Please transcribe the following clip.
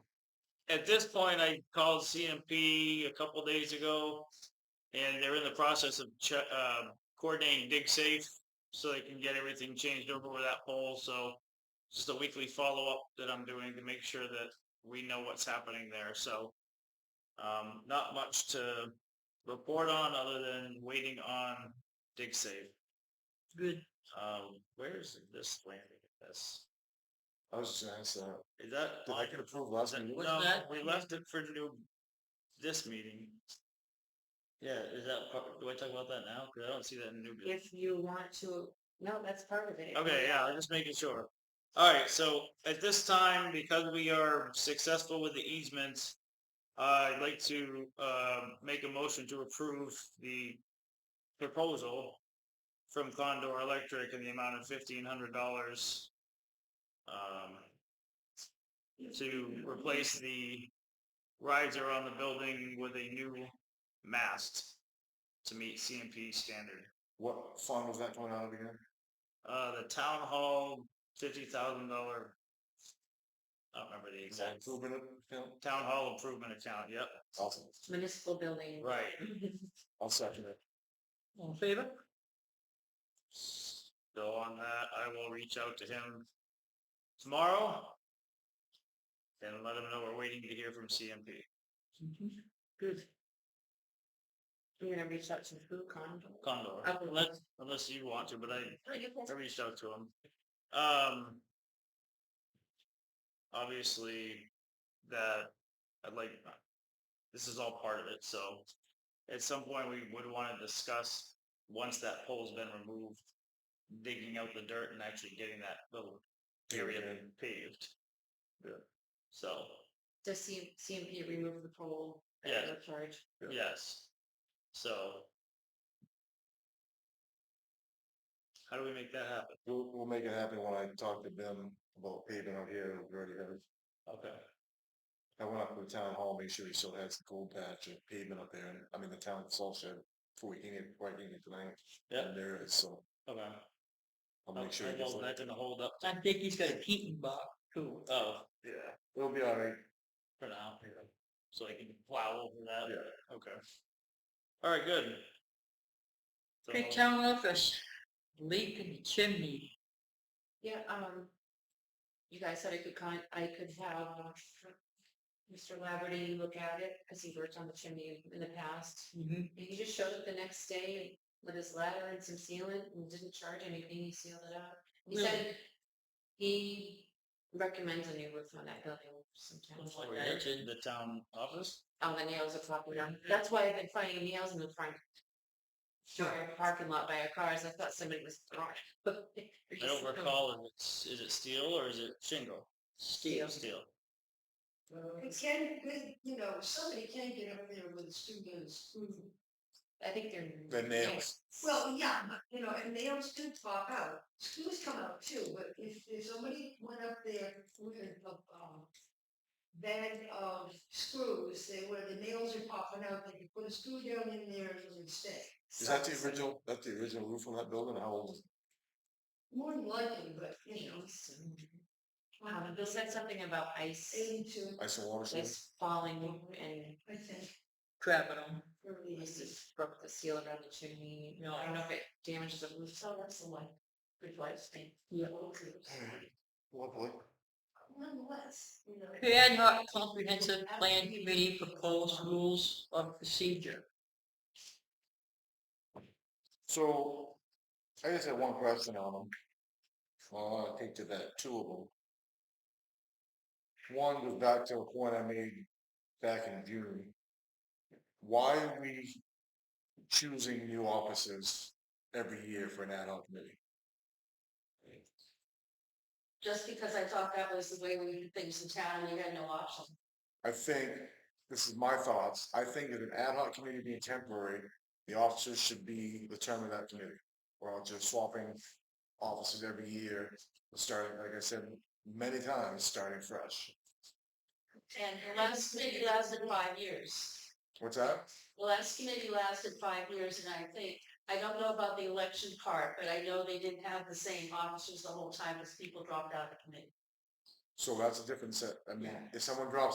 at this point, I called CMP a couple days ago, and they're in the process of che- uh, coordinating dig safe so they can get everything changed over with that pole. So just a weekly follow up that I'm doing to make sure that we know what's happening there. So um, not much to report on other than waiting on dig safe. Good. Um, where's this landing? This I was just gonna ask that. is that Did I get approved last Is that- meeting? What's No, that? we left it for new, this meeting. Yeah, is that, part- do I talk about that now? Cause I don't see that in new business. If you want to, no, that's part of it. Okay, yeah, I'm just making sure. Alright, so at this time, because we are successful with the easements, I'd like to, um make a motion to approve the proposal from Condor Electric in the amount of fifteen hundred dollars. Um, to replace the riser on the building with a new mast to meet CMP standard. What fund was that coming out of again? Uh, the town hall, fifty thousand dollar. I don't remember the exact, Improvement account? town hall improvement account, yep, Awesome. Municipal building. right. I'll second it. All in favor? So on that, I will reach out to him tomorrow. And let him know we're waiting to hear from CMP. Good. You're gonna reach out to who, Con? Condor, Okay. unless, unless you want to, but I, Oh, you can- I reached out to him. Um, obviously, that I'd like. This is all part of it. So, at some point, we would want to discuss once that pole's been removed, digging out the dirt and actually getting that little area paved. Yeah. So, Does C- CMP remove the pole? at Yeah. no Charge. Yeah. yes. So. How do we make that happen? We'll, we'll make it happen when I talk to them about paving out here, we already have. Okay. I went up to the town hall, make sure he still has the gold patch and pavement up there, and I mean, the town itself said, before we can get, before I can get tonight. Yeah. And there it is, so Okay. I'll Oh, make sure. I he gets know it. That didn't hold up. I think he's got a Keaton box too. Oh, Yeah, it'll be alright. for now, so I can plow over that. Yeah. Okay. All right, good. So, Big town office, leak in the chimney. Yeah, um, you guys said I could con, I could have uh, Mr. Laverty look at it, cause he worked on the chimney in the past. Mm-hmm. And he just showed up the next day with his ladder and some sealant and didn't charge anything. He sealed it up. He said he recommends a new roof on that building sometimes. Looks like over that. here to The town office? All Oh, the nails are popping out. Mm-hmm. That's why I've been finding nails in the front door parking lot by our cars. I thought somebody was throwing. I don't recall if it's, is it steel or is it shingle? Steel. Steel. It can, it- you know, somebody can get up there with students who, I think they're. The nails. well, yeah, but, you know, and nails do pop out. Screws come out too, but if, if somebody went up there with a, um, bag of screws, they, where the nails are popping out, they could put a screw down in there and it would stay. Is that the original, that's the original roof on that building, how old is it? More than likely, but, you know, Nails. Um, Bill said something about ice, eighty-two, Ice and water. service? ice falling and I think, Trapping them. early Must have eighties. broke the seal around the chimney. No. I don't know if it damages the roof. So that's the one. Good lifespan. Yeah. Lovely. Nonetheless, you know. Ad hoc comprehensive plan committee proposed rules of procedure. So, I just had one question on them. Well, I think to that, two of them. One goes back to a point I made back in June. Why are we choosing new officers every year for an ad hoc committee? Just because I thought that was the way we did things in town, we had no option. I think, this is my thoughts, I think that an ad hoc committee being temporary, the officers should be the term of that committee. We're all just swapping officers every year, starting, like I said, many times, starting fresh. And the last committee lasted five years. What's that? The last committee lasted five years and I think, I don't know about the election part, but I know they didn't have the same officers the whole time as people dropped out of the committee. So that's a different set. I mean, Yeah. if someone drops